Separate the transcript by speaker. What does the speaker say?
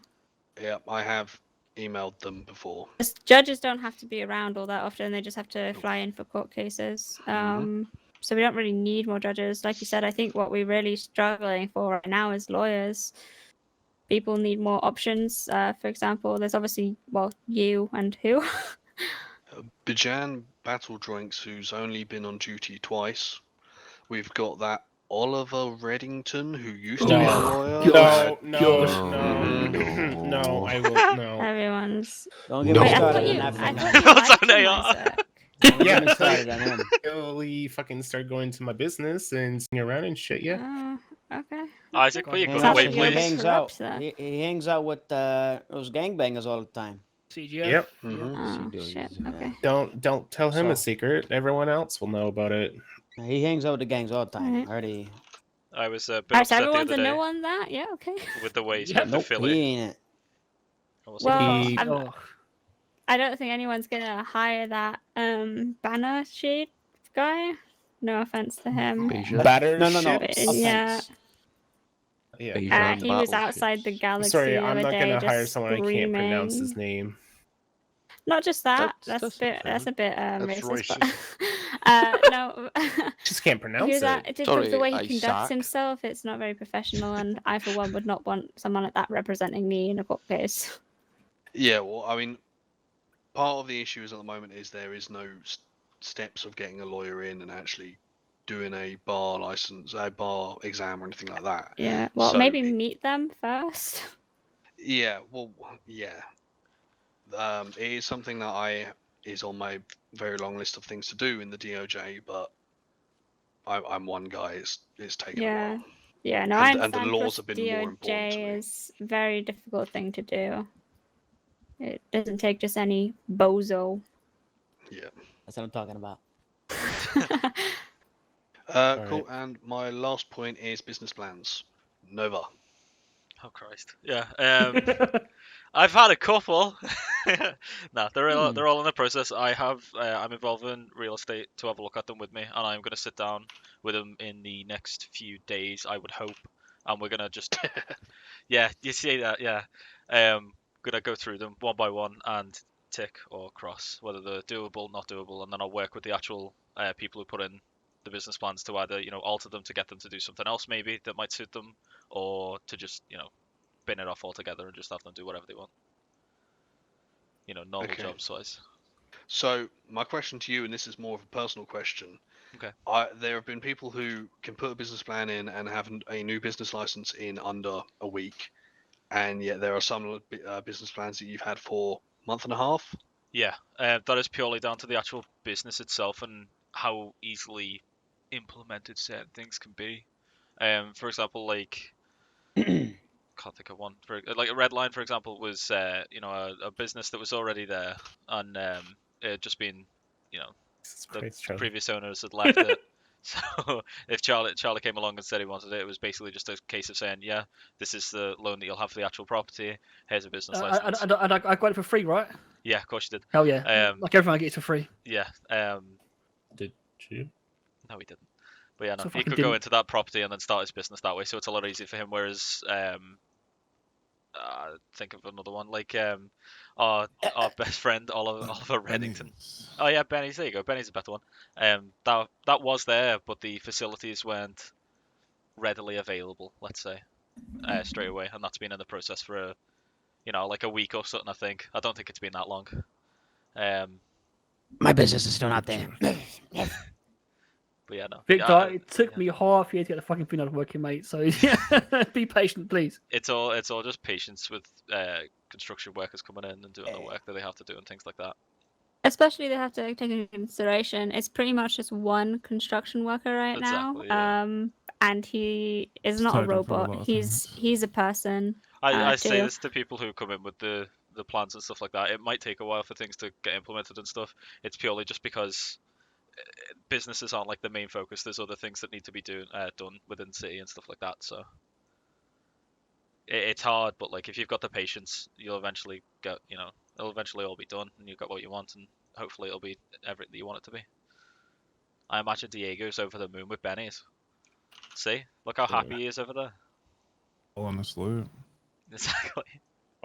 Speaker 1: Yeah, I have emailed them before.
Speaker 2: As Judges don't have to be around all that often; they just have to fly in for court cases.
Speaker 3: Mm-hmm.
Speaker 2: Um,
Speaker 1: Mhm.
Speaker 2: So we don't really need more judges. Like you said, I think what we're really struggling for right now is lawyers. People need more options. Uh, for example, there's obviously well you and who.
Speaker 1: Bijan Battle Drinks, who's only been on duty twice. We've got that Oliver Reddington, who used to be a
Speaker 4: Oh,
Speaker 1: lawyer.
Speaker 4: God.
Speaker 5: No,
Speaker 4: no,
Speaker 5: God.
Speaker 4: no,
Speaker 5: No.
Speaker 4: no, I will no.
Speaker 2: Everyone's.
Speaker 3: Don't
Speaker 5: No.
Speaker 3: me
Speaker 2: Wait, I
Speaker 3: Oh. started
Speaker 2: thought you.
Speaker 3: on
Speaker 2: I
Speaker 3: that
Speaker 2: thought
Speaker 3: one.
Speaker 2: you
Speaker 6: It's
Speaker 2: liked
Speaker 6: on
Speaker 2: him,
Speaker 6: AR.
Speaker 2: Isaac.
Speaker 3: Don't get
Speaker 4: Yeah.
Speaker 3: me started on him.
Speaker 4: Really fucking start going to my business and sitting around and shit. Yeah.
Speaker 2: Oh, okay.
Speaker 6: Isaac, will you go
Speaker 3: Hangs
Speaker 2: Sounds
Speaker 3: out-
Speaker 6: away,
Speaker 2: like
Speaker 3: he
Speaker 2: you're
Speaker 6: please?
Speaker 2: being-
Speaker 3: hangs out.
Speaker 2: Corrupts
Speaker 3: He, he hangs out with uh, those gangbangers all the time.
Speaker 7: CGF.
Speaker 4: Yep.
Speaker 1: Mhm.
Speaker 2: Oh,
Speaker 3: does,
Speaker 2: shit.
Speaker 3: yeah.
Speaker 2: Okay.
Speaker 4: Don't don't tell him a
Speaker 3: So-
Speaker 4: secret. Everyone else will know about it.
Speaker 3: He hangs out with the gangs all the time.
Speaker 2: Alright.
Speaker 3: Already,
Speaker 6: I was a bit
Speaker 2: Alright, so
Speaker 6: upset the
Speaker 2: everyone's
Speaker 6: other
Speaker 2: a no
Speaker 6: day
Speaker 2: on that. Yeah. Okay.
Speaker 6: with the way he
Speaker 7: Yeah.
Speaker 6: spent
Speaker 3: nope,
Speaker 6: the
Speaker 3: he
Speaker 6: Philly.
Speaker 3: ain't it.
Speaker 6: I was like,
Speaker 2: Well,
Speaker 4: He-
Speaker 2: I'm,
Speaker 7: Oh,
Speaker 2: I don't think anyone's gonna hire that um banner shade guy. No offense to him.
Speaker 5: Beja.
Speaker 4: Batter
Speaker 3: No, no, no.
Speaker 4: ships?
Speaker 2: But, uh, yeah.
Speaker 3: offense.
Speaker 4: Yeah.
Speaker 5: Beja
Speaker 2: Uh,
Speaker 5: and
Speaker 2: he was
Speaker 5: battleships.
Speaker 2: outside the
Speaker 4: I'm
Speaker 2: galaxy.
Speaker 4: sorry,
Speaker 2: the
Speaker 4: I'm
Speaker 2: other
Speaker 4: not
Speaker 2: day,
Speaker 4: gonna hire
Speaker 2: just
Speaker 4: someone I can't pronounce his
Speaker 2: screaming.
Speaker 4: name.
Speaker 2: Not just that. That's,
Speaker 5: That's- that's
Speaker 2: a bit. That's a bit um,
Speaker 5: That's
Speaker 2: racist. but- uh, no.
Speaker 4: Just can't pronounce
Speaker 2: He was
Speaker 4: it.
Speaker 2: at, just with the
Speaker 5: Sorry,
Speaker 2: way he
Speaker 5: I
Speaker 2: conducts
Speaker 5: suck.
Speaker 2: himself, it's not very professional, and I, for one, would not want someone like that representing me in a court case.
Speaker 1: Yeah, well, I mean, part of the issue is at the moment is there is no s- steps of getting a lawyer in and actually doing a bar license, a bar exam, or anything like that.
Speaker 2: Yeah. Well,
Speaker 1: So
Speaker 2: maybe
Speaker 1: it-
Speaker 2: meet them first.
Speaker 1: Yeah, well, yeah. Um, it is something that I is on my very long list of things to do in the DOJ, but I, I'm one guy. It's it's taken
Speaker 2: Yeah.
Speaker 1: a while.
Speaker 2: Yeah, no,
Speaker 1: And-
Speaker 2: I
Speaker 1: and the
Speaker 2: understand
Speaker 1: laws
Speaker 2: for
Speaker 1: have been more important to me.
Speaker 2: DOJ is a very difficult thing to do. It doesn't take just any bozo.
Speaker 3: That's what I'm talking about.
Speaker 1: Uh,
Speaker 4: Alright.
Speaker 1: cool. And my last point is business plans. Nova.
Speaker 6: oh Christ, yeah. Um, I've had a couple. nah, they're all,
Speaker 3: Hmm.
Speaker 6: they're all in the process. I have uh, I'm involved in real estate to have a look at them with me, and I'm gonna sit down with them in the next few days. I would hope, and we're gonna just yeah, you see that yeah, um, gonna go through them one by one and tick or cross whether they're doable, not doable, and then I'll work with the actual uh, people who put in the business plans to either you know alter them to get them to do something else maybe that might suit them, or to just you know bin it off altogether and just have them do whatever they want. You know, normal
Speaker 1: Okay.
Speaker 6: job size.
Speaker 1: So my question to you, and this is more of a personal question.
Speaker 6: Okay.
Speaker 1: I, there have been people who can put a business plan in and have n- a new business license in under a week, and yet there are some l- bi- uh, business plans that you've had for month and a half.
Speaker 6: Yeah, uh, that is purely down to the actual business itself and how easily implemented certain things can be. Um, for example, like can't think of one. For, like a red line, for example, was uh, you know a, a business that was already there and um, it had just been you know
Speaker 4: Jesus
Speaker 6: the
Speaker 4: Christ, Charlie.
Speaker 6: previous owners had left it. So if Charlie Charlie came along and said he wanted it, it was basically just a case of saying, yeah, this is the loan that you'll have for the actual property. Here's a business
Speaker 7: I,
Speaker 6: license.
Speaker 7: I, I, I- I got it for free, right?
Speaker 6: Yeah, of course you did.
Speaker 7: Hell yeah.
Speaker 6: Um,
Speaker 7: Like everyone gets for free.
Speaker 6: yeah. Um,
Speaker 4: Did you?
Speaker 6: no, he didn't. But yeah, no,
Speaker 7: So
Speaker 6: he
Speaker 7: fucking
Speaker 6: could go
Speaker 7: didn't.
Speaker 6: into that property and then start his business that way. So it's a lot easier for him. Whereas, um, uh, think of another one like um, our our best friend Oliver Oliver Reddington. Oh yeah, Benny's. There you go. Benny's a better one. Um, that that was there, but the facilities weren't readily available. Let's say
Speaker 7: Mm.
Speaker 6: uh, straight away, and that's been in the process for a, you know, like a week or something. I think. I don't think it's been that long. Um,
Speaker 3: My business is still not there.
Speaker 6: but yeah, no. yeah,
Speaker 7: Victor,
Speaker 6: I-
Speaker 7: it took
Speaker 6: yeah.
Speaker 7: me half a year to get the fucking thing out of working, mate. So be patient, please.
Speaker 6: it's all it's all just patience with uh, construction workers coming in and doing the
Speaker 3: Yeah.
Speaker 6: work that they have to do and things like that.
Speaker 2: Especially they have to take into consideration it's pretty much just one construction worker right
Speaker 6: Exactly,
Speaker 2: now.
Speaker 6: yeah.
Speaker 2: Um and he
Speaker 8: It's
Speaker 2: is not a
Speaker 8: tied in for a
Speaker 2: robot.
Speaker 8: lot, I think.
Speaker 2: he's he's a person.
Speaker 6: I,
Speaker 2: Uh,
Speaker 6: I say
Speaker 2: do-
Speaker 6: this to people who come in with the the plans and stuff like that. It might take a while for things to get implemented and stuff. It's purely just because uh, businesses aren't like the main focus. There's other things that need to be doing uh, done within the city and stuff like that. So it, it's hard, but like if you've got the patience, you'll eventually get you know it'll eventually all be done and you've got what you want and hopefully it'll be everything that you want it to be. I imagine Diego's over the moon with Benny's. See, look how happy he is over there.
Speaker 8: Honestly,
Speaker 6: Exactly.